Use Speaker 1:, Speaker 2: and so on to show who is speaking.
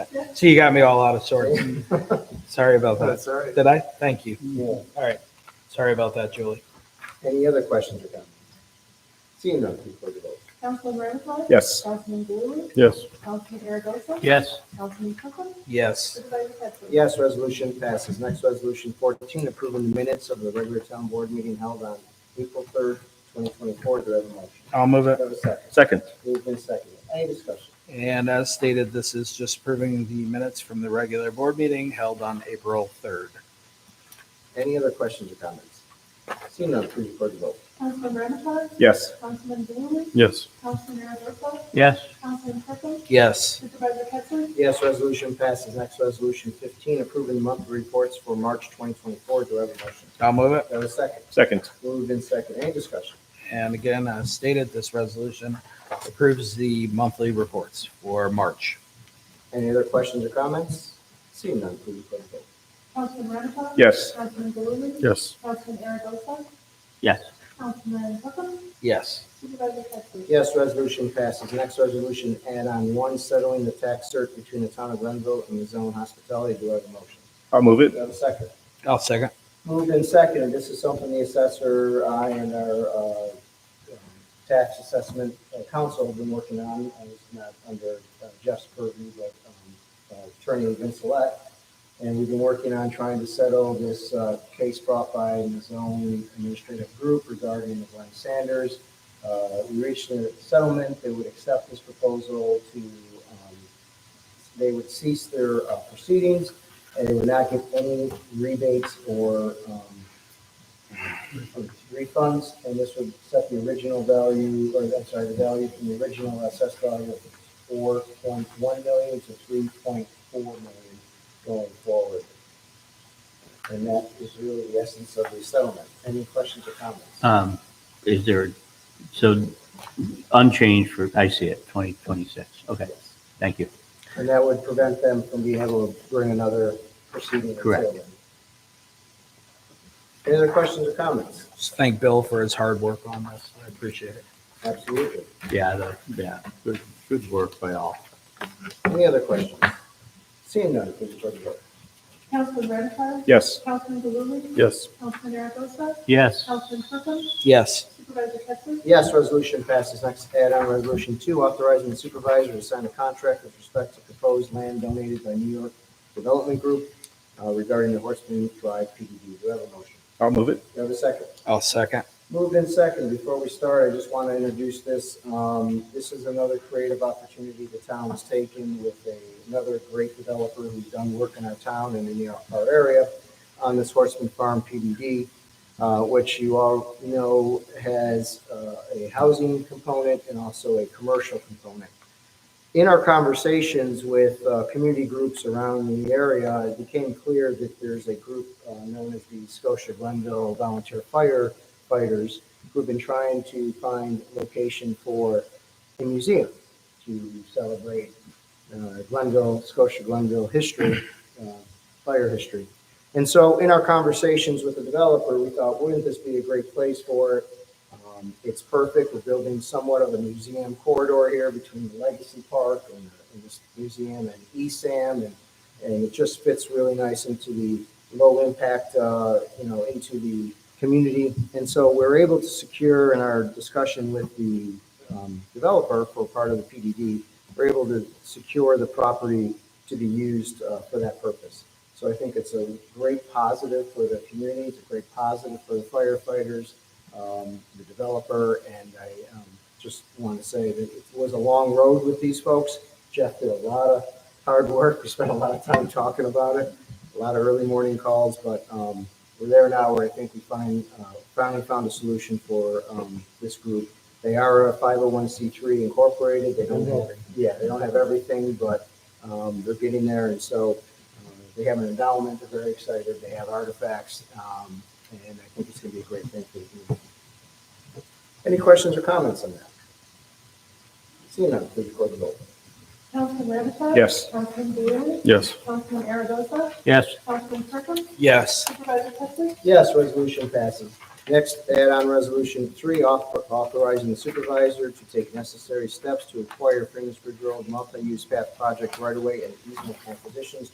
Speaker 1: So you got me all out of sorts. Sorry about that.
Speaker 2: Oh, That's all right.
Speaker 1: Did I? Thank you.
Speaker 2: Yeah.
Speaker 1: All right. Sorry about that, Julie.
Speaker 2: Any other questions or comments? Seeing none, please close the vote.
Speaker 3: Councilman Ramichardt?
Speaker 4: Yes.
Speaker 3: Councilman Blue?
Speaker 4: Yes.
Speaker 3: Councilman Aragosa?
Speaker 5: yes,
Speaker 3: Councilman Kirkland?
Speaker 1: Yes.
Speaker 3: Supervisor Pettsley?
Speaker 2: Yes, resolution passes. Next, resolution fourteen, approving the minutes of the regular town board meeting held on April third, twenty twenty-four. Do I have a motion?
Speaker 4: I'll move
Speaker 2: Do I have a second?
Speaker 4: Second.
Speaker 2: Moved and seconded. Any discussion?
Speaker 1: And as stated, this is just proving the minutes from the regular board meeting held on April 3rd.
Speaker 2: Any other questions or comments? Seeing none, please record the vote.
Speaker 3: Councilman Ramichardt?
Speaker 4: Yes.
Speaker 3: Councilman Blue?
Speaker 4: Yes.
Speaker 3: Councilman Aragosa?
Speaker 5: yes,
Speaker 3: Councilman Kirkland?
Speaker 1: Yes.
Speaker 3: Supervisor Pettsley?
Speaker 2: Yes, resolution passes. Next, resolution fifteen, approving the monthly reports for March twenty twenty-four. Do I have a motion?
Speaker 1: I'll move it.
Speaker 2: Do I have a second?
Speaker 4: Second.
Speaker 2: Moved and seconded. Any discussion?
Speaker 1: And again, as stated, this resolution approves the monthly reports for March.
Speaker 2: Any other questions or comments? Seeing none, please record the vote.
Speaker 3: Councilman Ramichardt?
Speaker 4: Yes.
Speaker 3: Councilman Blue?
Speaker 4: Yes.
Speaker 3: Councilman Aragosa?
Speaker 5: yes,
Speaker 3: Councilman Kirkland?
Speaker 1: Yes.
Speaker 3: Supervisor Pettsley?
Speaker 2: Yes, resolution passes. Next resolution, add-on one, settling the tax cert between the town of Glenville and the zone hospitality. Do I have a motion?
Speaker 4: I'll move
Speaker 2: Do
Speaker 4: it.
Speaker 2: I have a second?
Speaker 1: I'll second.
Speaker 2: Moved and seconded. This is something the assessor, I, and our uh, tax assessment uh, council have been working on. Uh, It's not under uh, Jeff's purview, but um, uh, Attorney Vincelette. And we've been working on trying to settle this uh, case brought by the zone administrative group regarding the Glenn Sanders. Uh, We reached a settlement. They would accept this proposal to, um, they would cease their uh, proceedings and they would not get any rebates or um, refunds, and this would set the original value, or I'm sorry, the value from the original assessed value of four point one million to three point four million going forward. And that is really the essence of the settlement. Any questions or comments?
Speaker 5: um, is there, so unchanged for, I see it, twenty twenty-six, okay,
Speaker 2: Yes.
Speaker 5: thank you,
Speaker 2: And that would prevent them from being able to bring another proceeding. until
Speaker 5: Correct.
Speaker 2: then. Any other questions or comments?
Speaker 1: Just thank Bill for his hard work on this. I appreciate it.
Speaker 2: Absolutely.
Speaker 5: yeah, the, yeah, good, good work by all,
Speaker 2: Any other questions? Seeing none, please record the vote.
Speaker 3: Councilman Ramichardt?
Speaker 4: Yes.
Speaker 3: Councilman Blue?
Speaker 4: Yes.
Speaker 3: Councilman Aragosa?
Speaker 5: yes,
Speaker 3: Councilman Kirkland?
Speaker 1: Yes.
Speaker 3: Supervisor Pettsley?
Speaker 2: Yes, resolution passes. Next add-on, resolution two, authorizing the supervisor to sign a contract with respect to proposed land donated by New York Development Group uh, regarding the Horseman Drive PDD. Do I have a motion?
Speaker 4: I'll move it.
Speaker 2: Do I have a second?
Speaker 1: I'll second.
Speaker 2: Moved in second. Before we start, I just want to introduce this. Um, This is another creative opportunity the town has taken with a- another great developer who's done work in our town and in the- our area on this Horseman Farm PDD, uh, which you all know has uh, a housing component and also a commercial component. In our conversations with uh, community groups around the area, it became clear that there's a group uh, known as the Scotia Glenville Volunteer Fire fighters who've been trying to find location for a museum to celebrate uh, Glenville, Scotia Glenville history, uh, fire history. And so in our conversations with the developer, we thought, wouldn't this be a great place for it? Um, It's perfect. We're building somewhat of a museum corridor here between the Legacy Park and and this museum and E ESAM. And, and it just fits really nice into the low impact, uh, you know, into the community. And so we're able to secure in our discussion with the um, developer for part of the PDD, we're able to secure the property to be used uh, for that purpose. So I think it's a great positive for the community, it's a great positive for the firefighters, um, the developer, and I um, just want to say that it was a long road with these folks. Jeff did a lot of hard work, we spent a lot of time talking about it, a lot of early morning calls, but um, we're there now where I think we find, uh, finally found a solution for um, this group. They are a 501c3 incorporated. They don't have, yeah, they don't have everything, but um, they're getting there. And so uh, they have an endowment. They're very excited. They have artifacts. um, And I think it's going to be a great thing for the community. Any questions or comments on that? Seeing none, please record the vote.
Speaker 3: Councilman Ramichardt?
Speaker 4: Yes.
Speaker 3: Councilman Blue?
Speaker 4: Yes.
Speaker 3: Councilman Aragosa?
Speaker 5: yes,
Speaker 3: Councilman Kirkland?
Speaker 1: Yes.
Speaker 3: Supervisor Pettsley?
Speaker 2: Yes, resolution passes. Next, add-on resolution three, author- authorizing the supervisor to take necessary steps to acquire Finnersbridge Road multi-use path project right-of-way and easement acquisitions